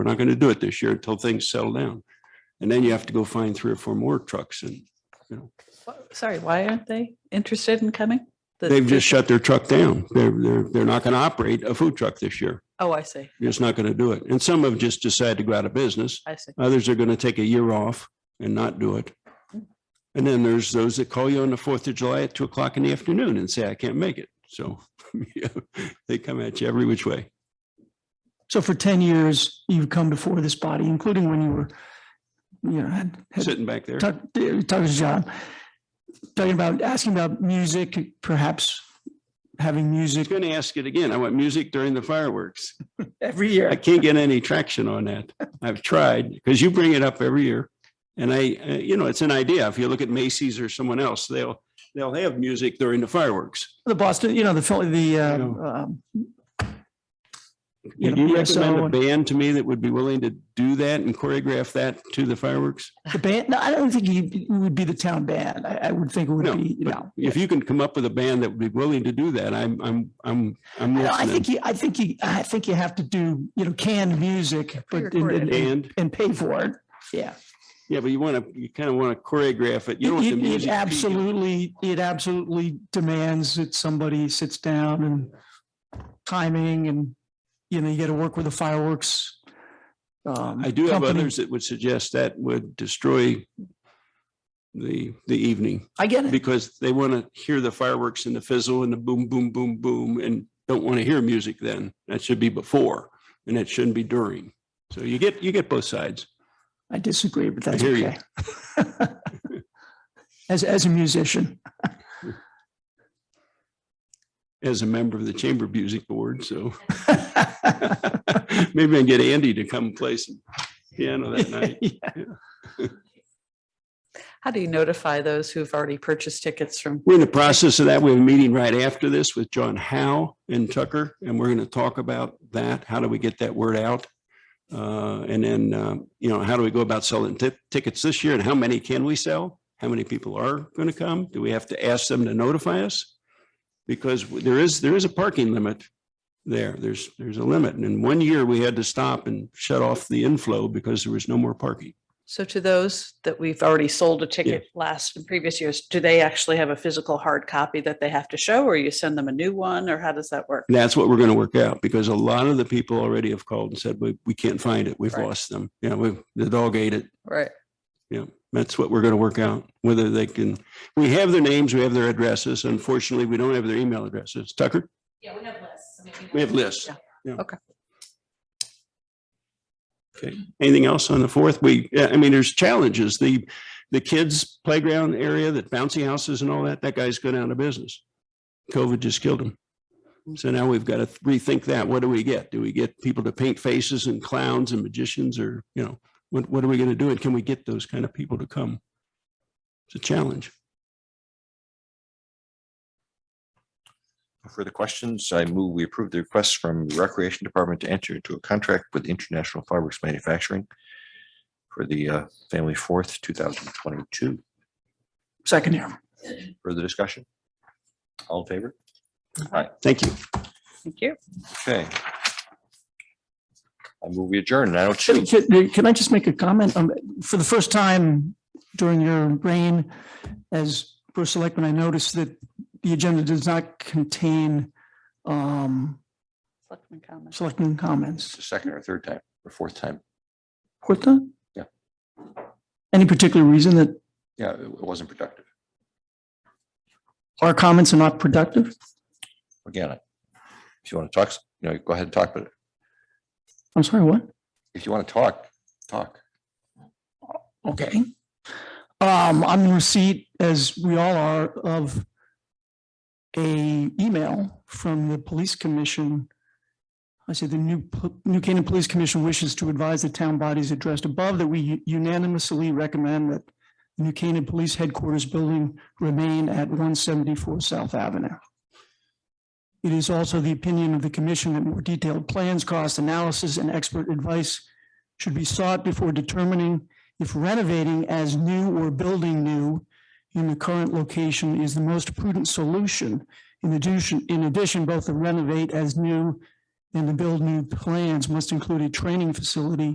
We're not going to do it this year until things settle down. And then you have to go find three or four more trucks and Wh- Sorry, why aren't they interested in coming? The- they've the- just shut their truck down. They're, they're, they're not going to operate a food truck this year. Oh, I see, They're just not going to do it. And some have just decided to go out of business. I see. Others are going to take a year off and not do it. And then there's those that call you on the Fourth of July at two o'clock in the afternoon and say, I can't make it. So yeah, they come at you every which way. So for ten years, you've come before this body, including when you were, you know, had, had Sitting back there. Tuck, Tucker's job. Talking about, asking about music, perhaps having I was music going to ask it again. I want music during the fireworks. every I year. can't get any traction on that. I've tried because you bring it up every year. And I, uh, you know, it's an idea. If you look at Macy's or someone else, they'll, they'll have music during the fireworks. The Boston, you know, the, Phil- the, I uh, know. um, Would Yeah, you yeah, so- recommend a band to me that would be willing to do that and choreograph that to the fireworks? the band, no, I don't think you- it would be the town band. I, I would think it No, would be, but no. If you can come up with a band that would be willing to do that, I'm, I'm, I'm, I'm No, I listening. think you, I think you, I think you have to do, you know, canned music, but, and- Pre-recorded. and, And, and pay for it. Yeah. yeah, but you want to, you kind of want to choreograph it. You don't want the It- It music. it peaking. absolutely, it absolutely demands that somebody sits down and timing and, you know, you got to work with the fireworks. um, I do have company. others that would suggest that would destroy the, the evening I get it. because they want to hear the fireworks and the fizzle and the boom, boom, boom, boom, and don't want to hear music then. That should be before and it shouldn't be during. So you get, you get both sides. I disagree, but that's hear you. okay. As, as a musician, As a member of the Chamber Music Board, so maybe I can get Andy to come play some piano that night. How do you notify those who've already purchased tickets from? We're in the process of that. We have a meeting right after this with John Howe and Tucker, and we're going to talk about that. How do we get that word out? Uh, And then, um, you know, how do we go about selling ti- tickets this year and how many can we sell? How many people are going to come? Do we have to ask them to notify us? Because there is, there is a parking limit there. There's, there's a limit. And in one year, we had to stop and shut off the inflow because there was no more parking. So to those that we've already sold a ticket last and previous years, do they actually have a physical hard copy that they have to show or you send them a new one or how does that work? And that's what we're going to work out because a lot of the people already have called and said, we, we can't find it. We've Right. lost them. You know, we, the dog ate it. Right. Yeah. That's what we're going to work out, whether they can, we have their names, we have their addresses. Unfortunately, we don't have their email addresses. Tucker? Yeah, we have lists. I mean, know- We have lists. Yeah. Yeah. Okay. Okay. Anything else on the fourth? We, yeah, I mean, there's challenges. The, the kids playground area, that bouncy houses and all that, that guy's going out of business. COVID just killed him. So now we've got to rethink that. What do we get? Do we get people to paint faces and clowns and magicians or, you know, what, what are we going to do? And can we get those kind of people to come? It's a challenge. No Further questions? I move we approve the request from the Recreation Department to enter into a contract with International Fireworks Manufacturing for the uh, Family Fourth, two thousand twenty-two. second year. Further discussion? All in favor? Thank you. Thank you. Okay. I move we adjourn nine oh two. Can- Can can I just make a comment? Um, For the first time during your reign as first selectman, I noticed that the agenda does not contain um, Selectmen comments. selectmen It's comments. the second or third time or fourth time. What the? Yeah. Any particular reason that Yeah, it it wasn't productive. our comments are not productive? Again, I- if you want to talk, you know, go ahead and talk, but I'm sorry, what? if you want to talk, talk. Okay. Um, I'm in receipt, as we all are, of a email from the police commission. I said the new, P- New Canaan Police Commission wishes to advise the town bodies addressed above that we unanimously recommend that the New Canaan Police Headquarters Building remain at one seventy-four South Avenue. It is also the opinion of the commission that more detailed plans, cost analysis, and expert advice should be sought before determining if renovating as new or building new in the current location is the most prudent solution. In addition, in addition, both the renovate as new and the build new plans must include a training facility